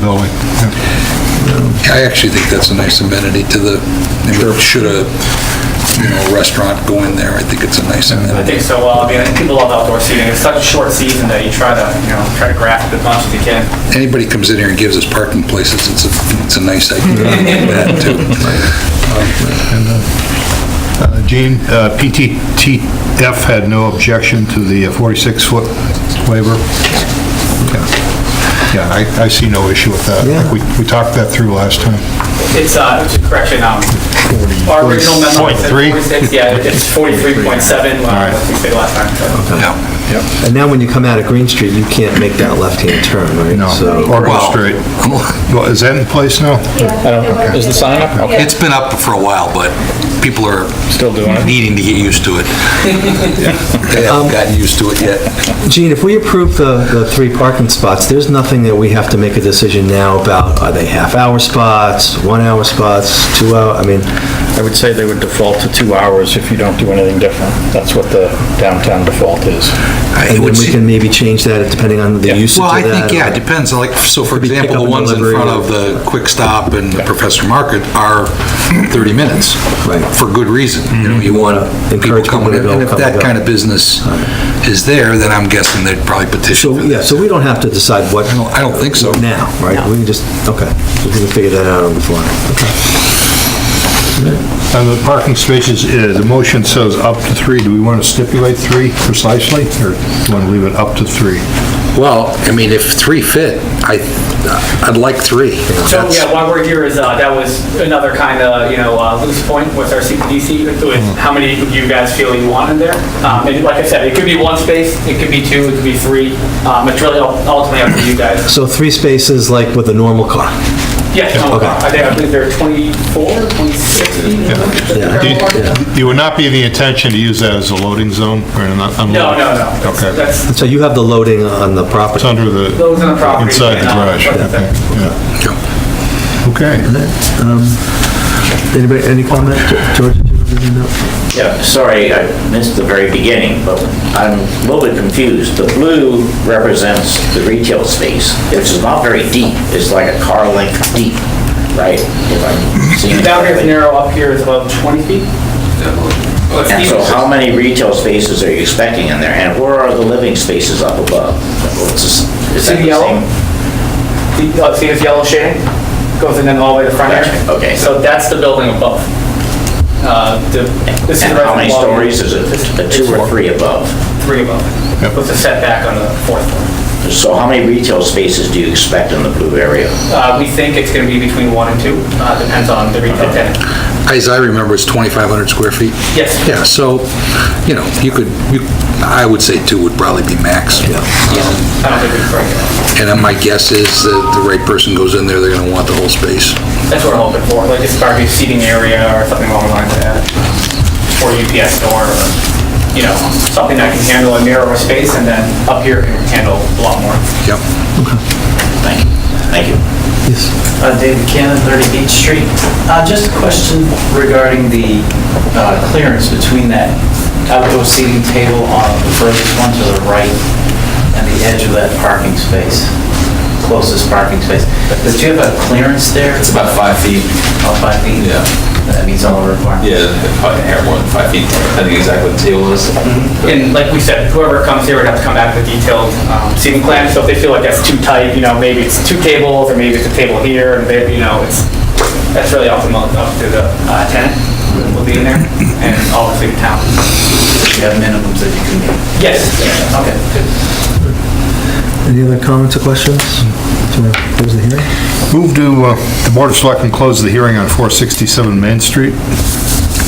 building. I actually think that's a nice amenity to the, should a, you know, restaurant go in there, I think it's a nice I amenity. think so, well, I mean, people love outdoor seating, it's such a short season that you try to, you know, try to grasp as much as you can. Anybody comes in here and gives us parking places, it's a, it's a nice idea, that too. Uh, Gene, uh, PTTF had no objection to the 46-foot waiver? Yeah. Yeah, I, I see no issue with that. I think We, we talked that through last time. It's, uh, it's a correction, um, our original memo it said 43? 46, yeah, it's 43.7, uh, right. what we said last time. so. Yeah. And now when you come out of Green Street, you can't make that left-hand turn, right? No, So- or go Wow. straight. Well, is that in place now? Is the sign up? Okay. It's been up for a while, but people are Still doing it. needing to get used to it. Um, They haven't gotten used to it yet. Gene, if we approve the, the three parking spots, there's nothing that we have to make a decision now about, are they half-hour spots, one-hour spots, two-hour, I mean, I would say they would default to two hours if you don't do anything different. That's what the downtown default is. I and would then we see- can maybe change that depending on the usage of Well, I that. uh, think, yeah, it depends, like, so for be example, the pickup and ones in delivery front or- of the Quick Stop and the Professor Market are 30 minutes. Right. For good reason, you know, you want people Encourage people coming to in, go, and if come and that go. kind of business is there, then I'm guessing they'd probably petition So, for yeah, that. so we don't have to decide what I don't- I don't think so. now, right? We can just, okay, we can figure that out on the fly. And Uh, the parking spaces, uh, the motion says up to three. Do we want to stipulate three precisely, or do we want to leave it up to three? Well, I mean, if three fit, I, I'd like three. So, yeah, why we're here is, uh, that was another kind of, you know, uh, loose point with our CPDC, with how many you guys feel you want in there. Um, and like I said, it could be one space, it could be two, it could be three, um, it's really ul- ultimately up to you guys. So three spaces like with a normal car. Yes, no, Okay. I think, I believe there are 24, 26, Do you- It would not be the intention to use that as a loading zone or an unloading? No, no, no. Okay. That's, So you have the loading on the property. It's under the... Those on the property. Inside the yeah. garage, okay, yeah. Okay. Anybody, any comment? George? did you have anything to- Yeah, sorry, I missed the very beginning, but I'm a little bit confused. The blue represents the retail space. It's not very deep, it's like a car length deep, right? If I'm seeing it Down here is correctly. narrow, up here is about 20 feet. Let's And see. so how many retail spaces are you expecting in there? And where are the living spaces up above? What's this- Is See that the the yellow? same? The- uh, See this yellow shading? Goes in then all the way to the front here. Okay. So that's the building above. Uh, the- This is And how many residence level, stories is it? A two or three above? Three above. With a setback on the fourth floor. So how many retail spaces do you expect in the blue area? Uh, We think it's going to be between one and two, uh, depends on the retail tenant. As I remember, it's 2,500 square feet. Yes. Yeah, so, you know, you could, you- I would say two would probably be max. Um, I don't think we can break it. And then my guess is that the right person goes in there, they're going to want the whole space. That's what we're hoping for, like it's probably a seating area or something along the lines of that. Or UPS store, or, you know, something that can handle a narrower space and then up here can handle a lot more. Yep. Thank you. Thank you. Uh, David Cannon, 30 Beach Street. Uh, Just a question regarding the uh, clearance between that Uh, outdoor seating table on the furthest one to the right and the edge of that parking space, closest parking space. Does you have a clearance there? It's about five feet. About five feet? Yeah. That meets all the requirements? Yeah, probably hair more than five feet, depending exactly what the table is. And like we said, whoever comes here would have to come back with a detailed um, seating plan, so if they feel like that's too tight, you know, maybe it's two tables, or maybe it's a table here, and maybe, you know, it's, that's really up to, mo- up to the uh, tenant who will be in there, and obviously the town. You have minimums that you can meet? Yes. Okay. Any other comments or questions? Do you want to close the hearing? Move to, uh, the Board of Selectmen close the hearing on 467 Main Street.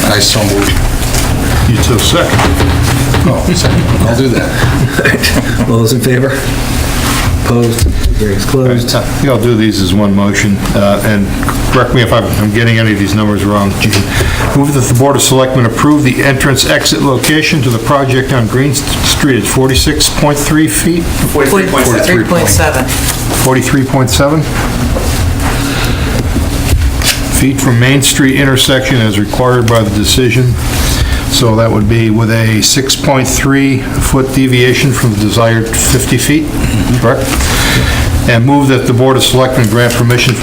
I so moved. You took second. Oh, I'll do that. All those in favor? Opposed? Hearing's closed. I think I'll do these as one motion, uh, and correct me if I'm I'm getting any of these numbers wrong. Gene. Move that the Board of Selectmen approve the entrance-exit location to the project on Green Street at 46.3 feet, 43.7. 3.7. 43.7 feet from Main Street intersection as required by the decision. So that would be with a 6.3-foot deviation from the desired 50 feet, correct? and move that the Board of Selectmen grant permission for